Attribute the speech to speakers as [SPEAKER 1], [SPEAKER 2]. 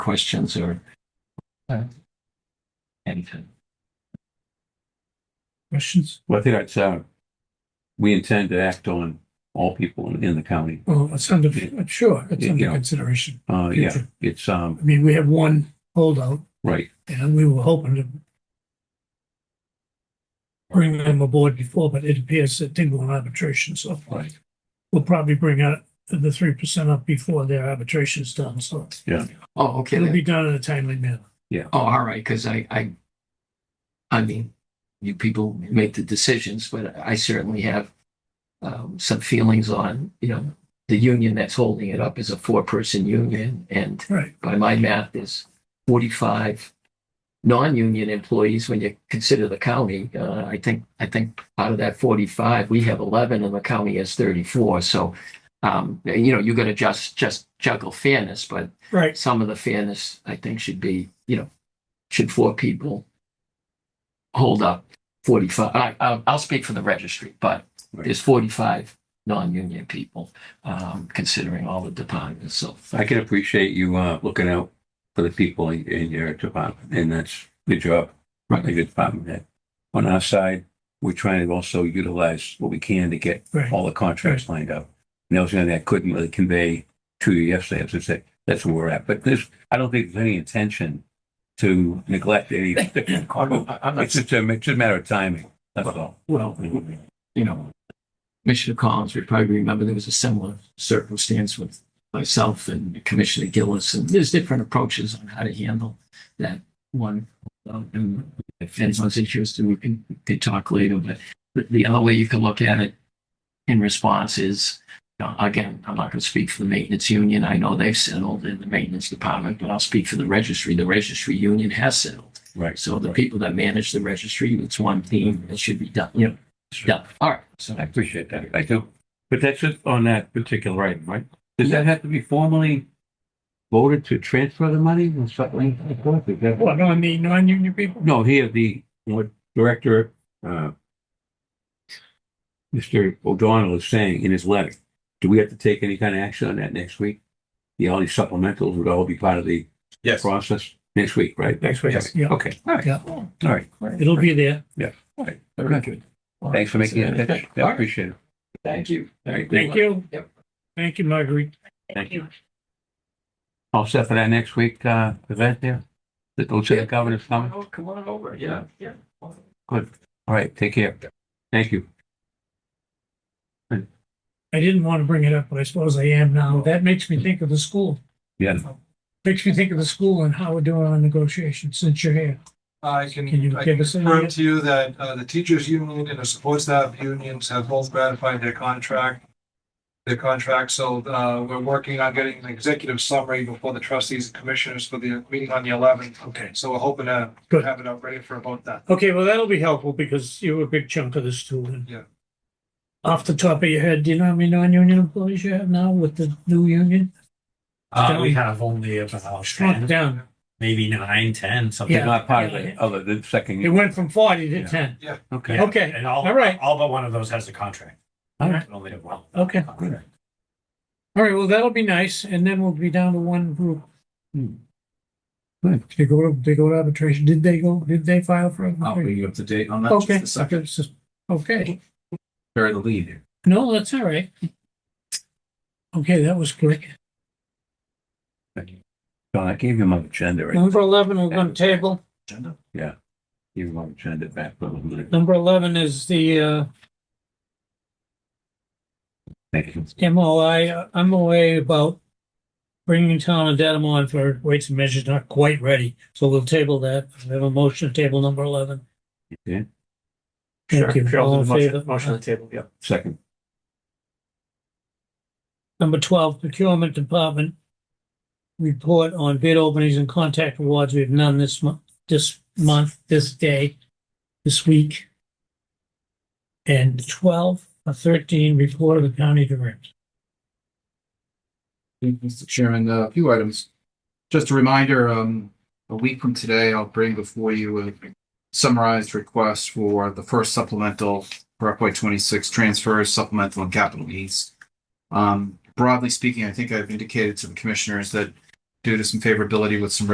[SPEAKER 1] questions or
[SPEAKER 2] Okay.
[SPEAKER 1] anything.
[SPEAKER 3] Questions?
[SPEAKER 4] Well, I think that's, uh, we intend to act on all people in, in the county.
[SPEAKER 3] Well, it's under,
[SPEAKER 4] Yeah.
[SPEAKER 3] sure, it's
[SPEAKER 4] Yeah,
[SPEAKER 3] under
[SPEAKER 4] yeah.
[SPEAKER 3] consideration.
[SPEAKER 4] Uh, yeah,
[SPEAKER 3] Future.
[SPEAKER 4] it's, um,
[SPEAKER 3] I mean, we have one holdout
[SPEAKER 4] right,
[SPEAKER 3] and we were hoping to bring them aboard before, but it appears that they go on arbitration, so
[SPEAKER 4] right.
[SPEAKER 3] we'll probably bring out the three percent up before their arbitration's done, so
[SPEAKER 1] Oh, okay.
[SPEAKER 3] it'll
[SPEAKER 1] then.
[SPEAKER 3] be done in a timely manner.
[SPEAKER 1] Oh, all right, because I, I, I mean, you people make the decisions, but I certainly have um, some feelings on, you know, the union that's holding it up is a four-person union, and
[SPEAKER 3] Right.
[SPEAKER 1] by my math, there's forty-five non-union employees when you consider the county. Uh, I think, I think out of that forty-five, we have eleven and the county has thirty-four, so um, you know, you're gonna just, just juggle fairness, but
[SPEAKER 3] Right.
[SPEAKER 1] some of the fairness, I think, should be, you know, should four people hold up forty-five, I, I'll, I'll speak for the registry, but
[SPEAKER 4] Right.
[SPEAKER 1] there's forty-five non-union people, um, considering all the departments, so.
[SPEAKER 4] I can appreciate you, uh, looking out for the people in, in your department, and that's good job.
[SPEAKER 1] Right.
[SPEAKER 4] Like your department head. On our side, we're trying to also utilize what we can to get
[SPEAKER 3] Right.
[SPEAKER 4] all the contracts lined up. And that was something I couldn't really convey to you yesterday, as I said, that's where we're at. But this, I don't think there's any intention to neglect any.
[SPEAKER 1] I'm
[SPEAKER 4] It's just a, it's just a matter of timing, that's all.
[SPEAKER 1] Well, you know, Commissioner Collins, we probably remember there was a similar circumstance with myself and Commissioner Gillis, and there's different approaches on how to handle that one. Um, And if anyone's interested, we can, we can talk later, but the- the other way you can look at it in response is, you know, again, I'm not going to speak for the maintenance union. I know they've settled in the maintenance department, but I'll speak for the registry. The registry union has settled.
[SPEAKER 4] Right.
[SPEAKER 1] So the people that manage the registry, it's one team, it should be done, you know, done. All right. So
[SPEAKER 4] I appreciate that. I do. But that's just on that particular item, right? Does that have to be formally voted to transfer the money or something? like that?
[SPEAKER 3] Well, no, I mean, non-union people,
[SPEAKER 4] No, here, the what director, uh, Mr. O'Donnell is saying in his letter, do we have to take any kind of action on that next week? The all these supplementals would all be part of the
[SPEAKER 5] Yes.
[SPEAKER 4] process next week, right?
[SPEAKER 3] next week,
[SPEAKER 5] Yes.
[SPEAKER 3] yeah,
[SPEAKER 4] Okay, all right,
[SPEAKER 3] yeah,
[SPEAKER 4] all right.
[SPEAKER 3] it'll be there.
[SPEAKER 4] All right. Thanks for making it.
[SPEAKER 1] Okay.
[SPEAKER 4] I appreciate it.
[SPEAKER 1] Thank you.
[SPEAKER 4] All right,
[SPEAKER 3] Thank you.
[SPEAKER 1] Yep.
[SPEAKER 3] Thank you, Marguerite.
[SPEAKER 4] Thank you. All set for that next week, uh, event there? The Lieutenant Governor's coming?
[SPEAKER 1] Oh, Come on over, yeah, yeah.
[SPEAKER 4] Good. All right, take care. Thank you.
[SPEAKER 3] I didn't want to bring it up, but I suppose I am now. That makes me think of the school.
[SPEAKER 4] Yeah.
[SPEAKER 3] Makes me think of the school and how we're doing on negotiations since you're here.
[SPEAKER 5] I can,
[SPEAKER 3] Can you
[SPEAKER 5] I
[SPEAKER 3] give
[SPEAKER 5] can
[SPEAKER 3] us any-
[SPEAKER 5] confirm to you that uh, the teachers union and the support staff unions have both ratified their contract. Their contract, so uh, we're working on getting an executive summary before the trustees and commissioners for the meeting on the eleventh.
[SPEAKER 3] Okay.
[SPEAKER 5] So we're hoping to
[SPEAKER 3] Good.
[SPEAKER 5] have it up ready for about that.
[SPEAKER 3] Okay, well, that'll be helpful because you were a big chunk of this too. and-
[SPEAKER 5] Yeah.
[SPEAKER 3] Off the top of your head, do you know how many non-union employees you have now with the new union?
[SPEAKER 6] Uh,
[SPEAKER 3] Don't-
[SPEAKER 6] we have only about
[SPEAKER 3] Shrunk
[SPEAKER 6] 10,
[SPEAKER 3] down.
[SPEAKER 6] maybe nine, 10, something.
[SPEAKER 3] Yeah.
[SPEAKER 4] They're not part of the other, the
[SPEAKER 3] It
[SPEAKER 4] second.
[SPEAKER 3] went from forty to
[SPEAKER 4] Yeah.
[SPEAKER 3] ten.
[SPEAKER 4] Okay.
[SPEAKER 6] Yeah,
[SPEAKER 3] Okay,
[SPEAKER 6] And all,
[SPEAKER 3] all right.
[SPEAKER 6] all but one of those has a contract.
[SPEAKER 3] All
[SPEAKER 6] We
[SPEAKER 3] right.
[SPEAKER 6] Only have one.
[SPEAKER 3] Okay.
[SPEAKER 6] Contract.
[SPEAKER 3] All right, well, that'll be nice. And then we'll be down to one group.
[SPEAKER 4] Hmm. Good.
[SPEAKER 3] They go, to they go to arbitration. Did they go, did they file for
[SPEAKER 7] I'll
[SPEAKER 3] arbitration?
[SPEAKER 7] bring you up to date on that.
[SPEAKER 3] Okay.
[SPEAKER 7] Just a second,
[SPEAKER 3] It's just- Okay,
[SPEAKER 7] bury the lead here.
[SPEAKER 3] no, that's all right. Okay, that was quick.
[SPEAKER 4] John, I gave you my agenda, right?
[SPEAKER 3] Number eleven, we're going to table.
[SPEAKER 7] Agenda?
[SPEAKER 4] Gave you my agenda back for a little bit.
[SPEAKER 3] Number eleven is the, uh,
[SPEAKER 4] Thank you.
[SPEAKER 3] MOI, I'm away about bringing town and datum on for weights and measures, not quite ready. So we'll table that. We have a motion to table number eleven.
[SPEAKER 4] Okay,
[SPEAKER 3] Thank you.
[SPEAKER 6] Sure, I'll do
[SPEAKER 3] All in
[SPEAKER 6] the motion-
[SPEAKER 3] favor?
[SPEAKER 6] Motion on the table, yeah.
[SPEAKER 4] second.
[SPEAKER 3] Number twelve, procurement department. Report on bid openings and contact awards. We have none this month, this month, this day, this week. And twelve or thirteen, report of the county director.
[SPEAKER 7] Thank you, Mr. Chairman, Uh, a few items. Just a reminder, um, a week from today, I'll bring before you a summarized request for the first supplemental for FY twenty-six transfers, supplemental and capital needs. Um, broadly speaking, I think I've indicated to the commissioners that due to some favorability with some